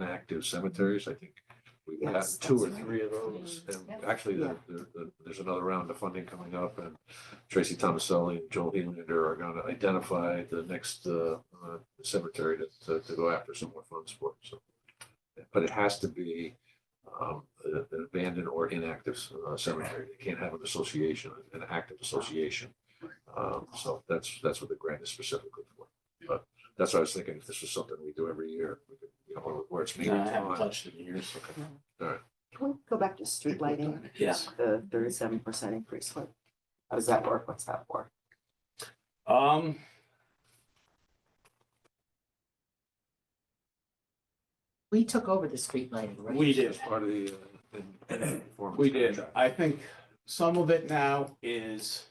active cemeteries, I think. We will have Yes, two or that's right. three of those, and Yeah. actually, Yeah. there, there- there- there's another round of funding coming up, and Tracy Thomaselli and Joel Helander are gonna identify the next, uh, uh, cemetery to- to, to go after some more funds for, so. But it has to be, um, an an abandoned or inactive uh, cemetery, they can't have an association, an active association. Um, so that's, that's what the grant is specifically for. But that's what I was thinking, if this was something we do every year, we could, you know, where it's. No, I haven't meaningful. touched it in years. Can we go back to street lighting? Yes. The thirty-seven percent increase, what, how does that work? What's that for? Um. We took over the street lighting, right? We did. As part of the. uh, in- in performance We did. contract. I think some of it now is,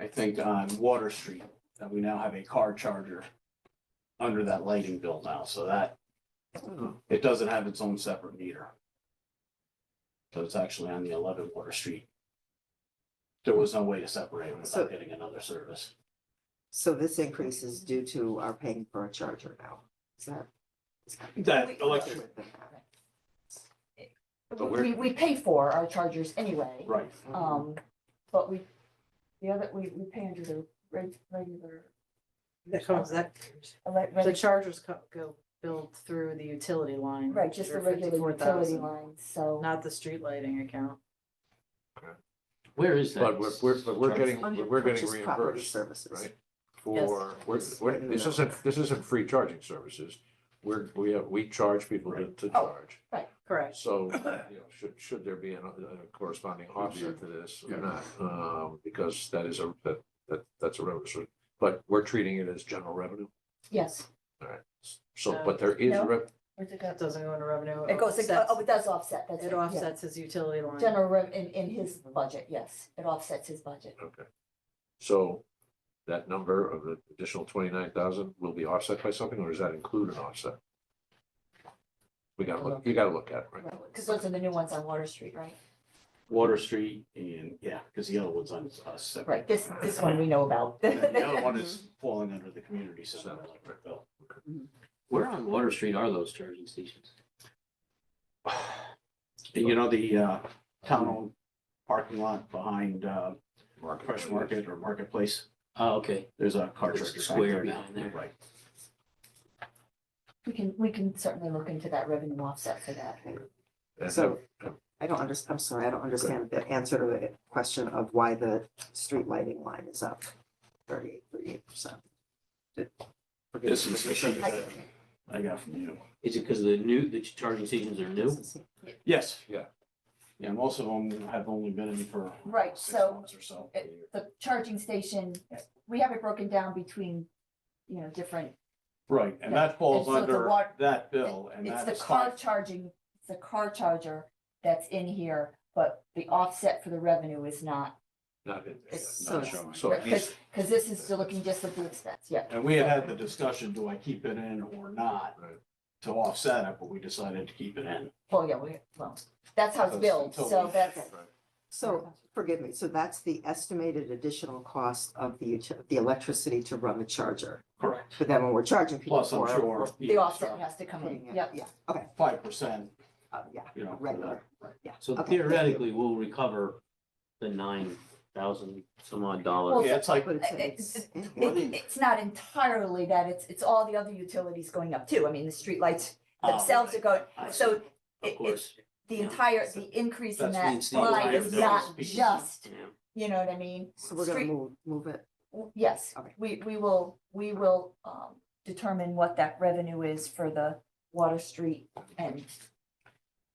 I think on Water Street, that we now have a car charger under that lighting bill now, so that Oh. it doesn't have its own separate meter. So it's actually on the eleven Water Street. There was no way to separate it So- without getting another service. So this increase is due to our paying for a charger now, is that? is that- That electric, But we're- We, we pay for our chargers anyway, right. um, but we, the other, we, we pay under the reg- regular. That comes, that, elec- the reg- chargers co- go billed through the utility line. Right, just the which are regular utility $54,000, line, so. Not the street lighting account. Where is But we're, we're, but we're getting, Under we're getting purchased property reimbursed, services. right? For, we're, Yes. we're, this isn't, this isn't free charging services. We're, we have, we charge people to, to Oh. charge. Correct. So, you know, should, should there be a corresponding offset to this or Yeah. not? Um, because that is a, that, that, that's a revenue source. But we're treating it as general revenue, Yes, all right? So, No. but there is, Uh, No. rev- where's it go? That doesn't go into revenue. It goes, oh, offsets- oh, it does offset, that's it. It yeah. offsets his utility line. General, rev- in, in his budget, yes, it offsets his budget, okay. So that number of the additional twenty-nine thousand will be offset by something, or does that include an offset? We gotta look, you gotta look at it, right? right, because those are the new ones on Water Street, right? Water Street and, yeah, because the other one's on us separate. Right, Mm-hmm. this, this one we know about. And then The other one is falling under the community center electric bill. Where on Water Street are those charging stations? And you know, the uh, town owned parking lot behind uh, Fresh Market or Marketplace, Oh, okay. there's a car There's charger. a back square there. behind there. Right. We can, we can certainly look into that revenue offset for that. And So I don't under, I'm sorry, I don't understand the answer to the question of why the street lighting line is up thirty-eight, thirty-eight percent. This is the sheet I- that I got from you. Is it because the new, the charging stations are new? Yes. Yeah. Yeah, most of them have only been in for Right, six so months or so. it- the charging station, we have it broken down between, you know, different, Right, and that falls And so the under wa- that bill and it's that the is car five. charging, it's the car charger that's in here, but the offset for the revenue is not. Not in there. It's Not so- showing. So it needs, Because, because this is still looking just at the expense, yeah. And we had had the discussion, do I keep it in or not? Right. To offset it, but we decided to keep it in. Well, Oh, yeah, we, well, that's how it's Because billed, until so we- that's, So, forgive me, so that's the estimated additional cost of the, ut- the electricity to run the charger. Correct. But then when we're charging people Plus, I'm for it, we're sure. the offset has to come putting in, it, yeah. yeah, okay, Five percent, uh, yeah, you know. for Regular. that, right. So Okay, thank you. theoretically, we'll recover the nine thousand some Well, odd dollars. Yeah, it's like, but Uh, it's- it- it's. It, it's not entirely that, it's, it's all the other utilities going up too, I mean, the streetlights themselves are going, I see. so it- Of course. the Yeah. entire, the increase in That's that means the line entire is bill not is being- just, Yeah. you know what I mean? So we're gonna Street- move, move it, w- Yes, Okay. we, we will, we will, um, determine what that revenue is for the Water Street and,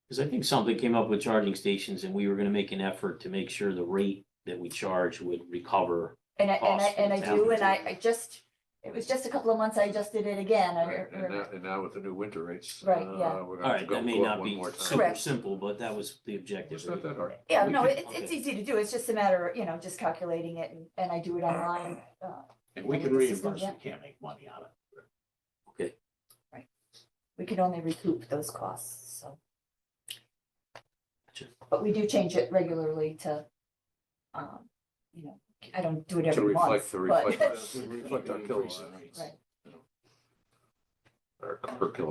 Because I think something came up with charging stations and we were gonna make an effort to make sure the rate that we charge would recover. and I, and I, and I do, and I, Awesome. I just, it was just a couple of months, I just did it again, I Right, and uh, now, remember. and now with the new winter rates. Right, yeah. uh, We're gonna have All to right, go that may go up not one be more time. super Correct. simple, but that was the objective. It's not that hard. Yeah, We no, can- it, it's easy to do, it's just a matter of, you know, just calculating it and, and I do it online, uh, if we can reimburse, we can't make money on it. Okay, we can only recoup those costs, so. Gotcha. But we do change it regularly to, um, you know, I don't do it To every month, reflect, to reflect, but. to reflect our kilowatt, Increase in rates. Right. our per kilowatt.